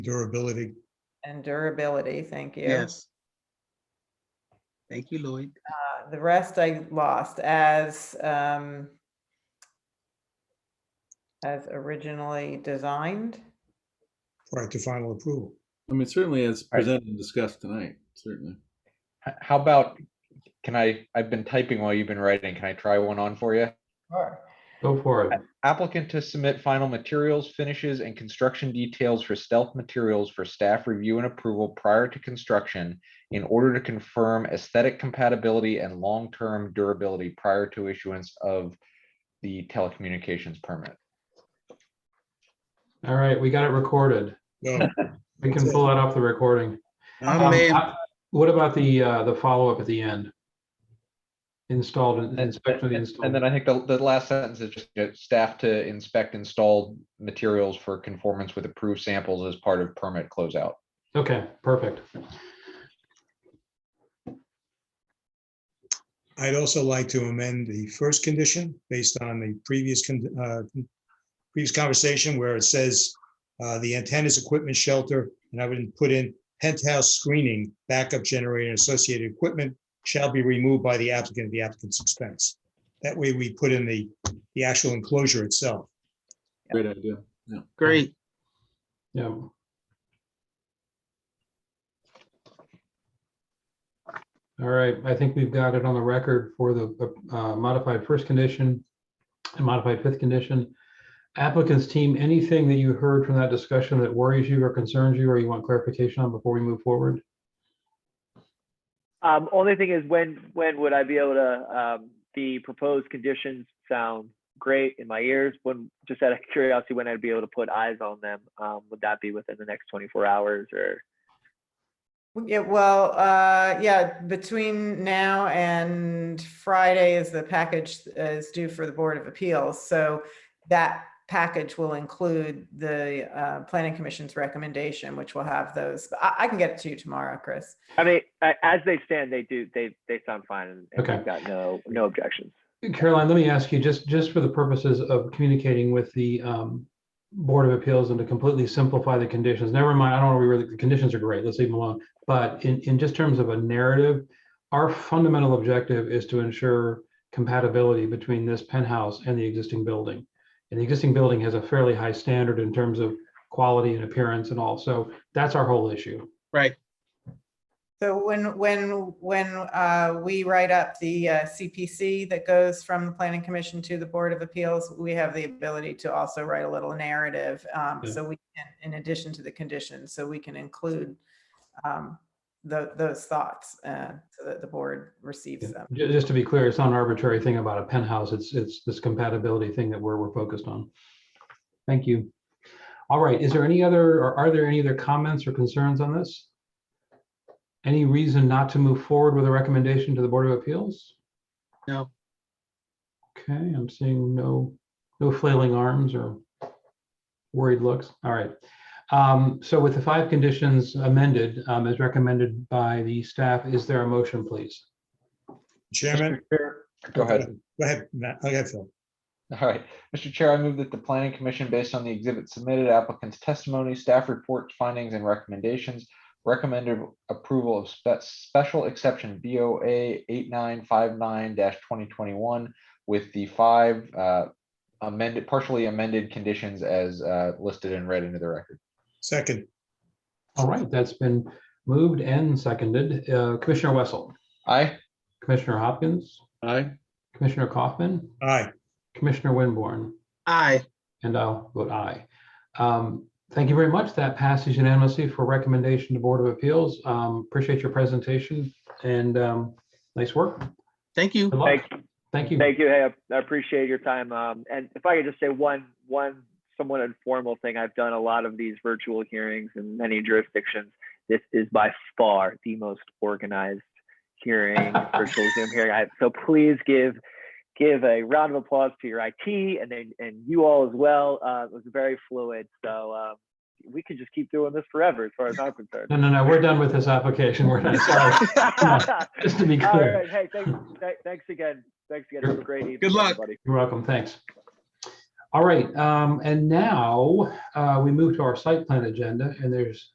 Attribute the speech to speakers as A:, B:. A: durability.
B: and durability, thank you.
C: Yes. Thank you, Lloyd.
B: Uh, The rest I lost as, um, as originally designed.
A: prior to final approval.
D: I mean, certainly as
E: All right.
D: presented and discussed tonight, certainly.
E: H- How about, can I, I've been typing while you've been writing. Can I try one on for you?
F: Go for it.
E: Applicant to submit final materials, finishes, and construction details for stealth materials for staff review and approval prior to construction in order to confirm aesthetic compatibility and long-term durability prior to issuance of the telecommunications permit.
F: All right, we got it recorded.
A: No,
F: We can pull that off the recording.
C: I'm
F: Um,
C: in.
F: I- What about the, uh, the follow-up at the end? Installed, and- inspection of
E: And
F: the
E: and
F: installed.
E: then I think the, the last sentence is just you know, staff to inspect installed materials for conformance with approved samples as part of permit closeout.
F: Okay, perfect.
A: I'd also like to amend the first condition based on the previous, con- uh, previous conversation where it says uh, the antennas, equipment, shelter, and I would put in penthouse screening, backup generator, and associated equipment shall be removed by the applicant at the applicant's expense. That way we put in the, the actual enclosure itself.
D: Great idea.
C: Great.
F: Yeah. All right, I think we've got it on the record for the uh, modified first condition and modified fifth condition. Applicants team, anything that you heard from that discussion that worries you or concerns you or you want clarification on before we move forward?
G: Um, only thing is when, when would I be able to, um, the proposed conditions sound great in my ears? When, just out of curiosity, when I'd be able to put eyes on them? Um, would that be within the next twenty-four hours or?
B: Well, Yeah, well, uh, yeah, between now and Friday is the package uh, is due for the Board of Appeals. So that package will include the uh, Planning Commission's recommendation, which will have those. But I, I can get it to you tomorrow, Chris.
G: I mean, I- as they stand, they do, they, they sound fine and and
F: Okay.
G: we've got no, no objections.
F: Caroline, let me ask you, just, just for the purposes of communicating with the um, Board of Appeals and to completely simplify the conditions, never mind, I don't want to reword, the- the conditions are great, let's leave them alone. But in, in just terms of a narrative, our fundamental objective is to ensure compatibility between this penthouse and the existing building. And the existing building has a fairly high standard in terms of quality and appearance and all, so that's our whole issue.
C: Right.
B: So when, when, when uh, we write up the uh, CPC that goes from the Planning Commission to the Board of Appeals, we have the ability to also write a little narrative. um,
F: Yeah.
B: So we, can, in addition to the conditions, so we can include um, tho- those thoughts uh, so that the board receives them.
F: Ju- Just to be clear, it's not an arbitrary thing about a penthouse. It's, it's this compatibility thing that we're, we're focused on. Thank you. All right, is there any other, or are there any other comments or concerns on this? Any reason not to move forward with a recommendation to the Board of Appeals?
C: No.
F: Okay, I'm seeing no, no flailing arms or worried looks. All right. Um, So with the five conditions amended, um, as recommended by the staff, is there a motion, please?
A: Chairman,
E: Go ahead.
A: go ahead, Matt, go ahead, Phil.
E: All right, Mr. Chair, I move that the planning commission, based on the exhibit submitted, applicant's testimony, staff report, findings and recommendations, recommended approval of spe- special exception BOA eight nine five nine twenty twenty-one with the five uh, amended, partially amended conditions as uh, listed and read into the record.
A: Second,
F: All right, that's been moved and seconded. Uh, Commissioner Wessel,
E: Aye.
F: Commissioner Hopkins,
D: Aye.
F: Commissioner Kaufman,
A: aye.
F: Commissioner Winborn,
C: Aye.
F: and I'll vote aye. Um, Thank you very much. That passes unanimously for recommendation to Board of Appeals. Um, Appreciate your presentation and um, nice work.
C: Thank you.
F: Good luck.
G: Thank,
F: Thank you.
G: Thank you. Hey, I- I appreciate your time. Um, and if I could just say one, one somewhat informal thing, I've done a lot of these virtual hearings in many jurisdictions. This is by far the most organized hearing, virtual Zoom hearing. I, so please give, give a round of applause to your IT and then, and you all as well. Uh, it was very fluid. So, uh, we could just keep doing this forever as far as I'm concerned.
F: No, no, no, we're done with this application. We're done. Sorry, just to be
G: All
F: clear.
G: right. Hey, thanks, thanks again. Thanks again. Have a great evening.
C: Good luck.
G: everybody.
F: You're welcome. Thanks. All right, um, and now, uh, we move to our site plan agenda, and there's